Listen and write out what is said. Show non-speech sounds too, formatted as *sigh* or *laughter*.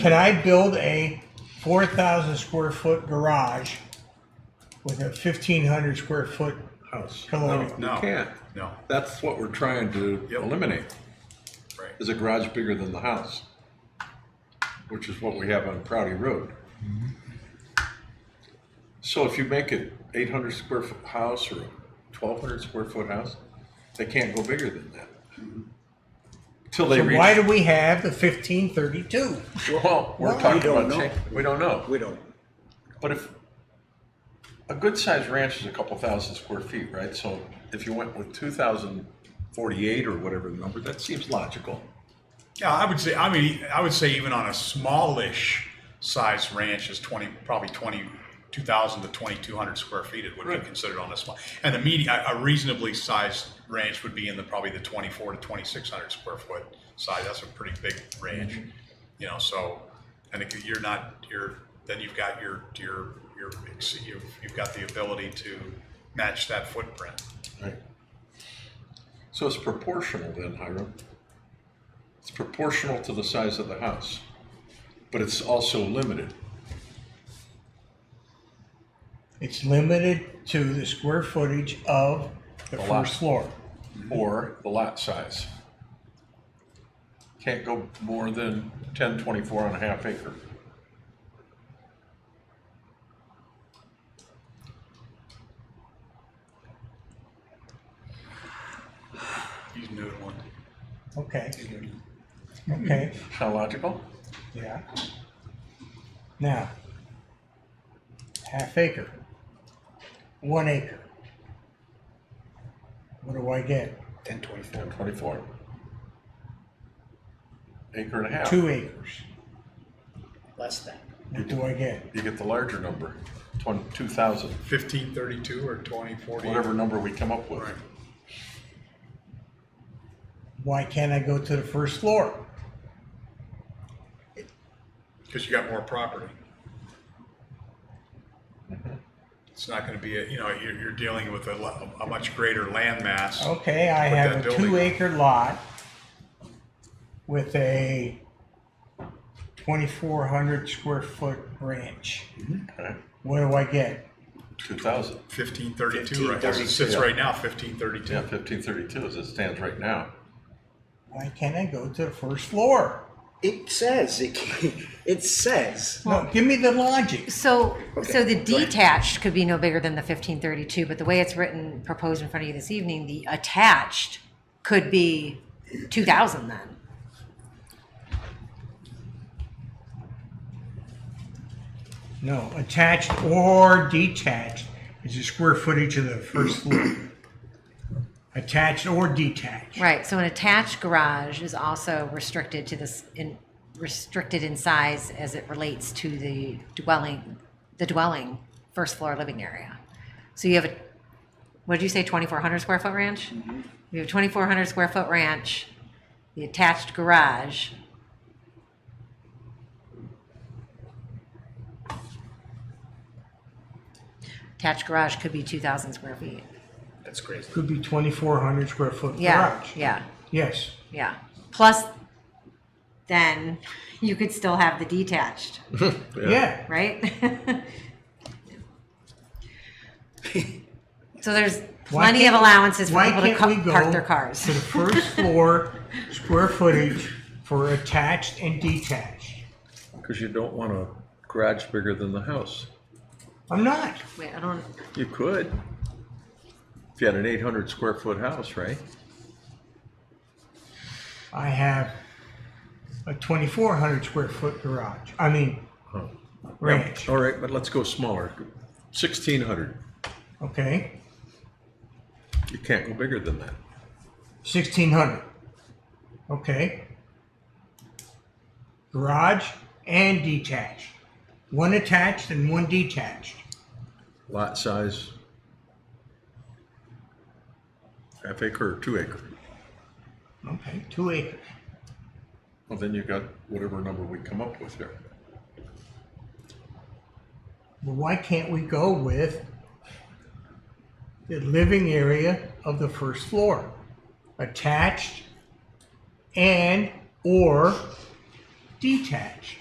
Can I build a four thousand square foot garage with a fifteen hundred square foot house. No, pillow? you No. can't. No. That's what we're trying to Yep. eliminate, Right. is a garage bigger than the house, which is what we have on Prouty Road. So if you make it eight hundred square foot house or twelve hundred square foot house, they can't go bigger than that. Mm-hmm. Till they So why reach, do we have the fifteen thirty-two? well, we're Why? We talking don't about, know. change- we don't know, We don't. but if, a good sized ranch is a couple thousand square feet, right? So if you went with two thousand forty-eight or whatever the number, that seems logical. Yeah, I would say. I mean, I would say even on a smallish size ranch is twenty, probably twenty two thousand to twenty two hundred square feet. It would Right. be considered on a small, and a medi- a a reasonably sized ranch would be in the probably the twenty four to twenty six hundred square foot size. That's a pretty big ranch, Mm-hmm. you know. So, and if you're not, you're then you've got your your your ex- you've, you've got the ability to match that footprint. Right. So it's proportional then, Hiram. It's proportional to the size of the house, but it's also limited. It's limited to the square footage of the The lot. first floor. Or the lot size. Can't go more than ten twenty-four and a half acre. He's noodling. Okay. Okay, Sound logical? yeah. Now, half acre, one acre. What do I get? Ten twenty-four. Ten twenty-four. Acre and a half. Two acres. less than. What do I get? You get the larger number, twenty, two thousand, Fifteen thirty two or twenty forty. whatever number we come up with. Right. Why can't I go to the first floor? because you got more property. It's not going to be, a you know, you're, you're dealing with a, lo- a much greater land mass. Okay, I Put have that a building two up. acre lot with a twenty-four hundred square foot ranch. Mm-hmm. Okay, What do I get? two thousand. Fifteen thirty-two, right, as it sits right now, fifteen Yeah, thirty-two. fifteen thirty-two as it stands right *laughs* now. Why can't I go to the first floor? It says, it, *laughs* it says. No, give me the logic. So, so the Okay, go ahead. detached could be no bigger than the fifteen thirty-two, but the way it's written, proposed in front of you this evening, the attached could be two thousand then. No, attached or detached is the square footage of the first floor. Attached or detached. Right, so an attached garage is also restricted to this, in, restricted in size as it relates to the dwelling, the dwelling, first floor living area. So you have a, what did you say, twenty-four hundred square foot ranch? You have a twenty-four hundred square foot ranch, the attached garage. Attached garage could be two thousand square feet. That's crazy. Could be twenty-four hundred square foot Yeah, garage. yeah. Yes. Yeah. Plus, then you could still have the detached, Yeah. right? *laughs* so there's Why plenty of can't- allowances for why people to can't we ca- go park their cars. to the *laughs* first floor square footage for attached and detached? Because you don't want a garage bigger than the house. I'm not. Wait, I don't. You could. If you had an eight hundred square foot house, right? I have a 2,400 square foot garage. I mean, ranch. All right, but let's go smaller. Sixteen hundred. Okay, You can't go bigger than that. 1,600. Okay, garage and detached. One attached and one detached. Lot size. Half acre or two acre. Okay, two acres. Well, then you got whatever number we come up with here. Well, why can't we go with the living area of the first floor, attached and or detached?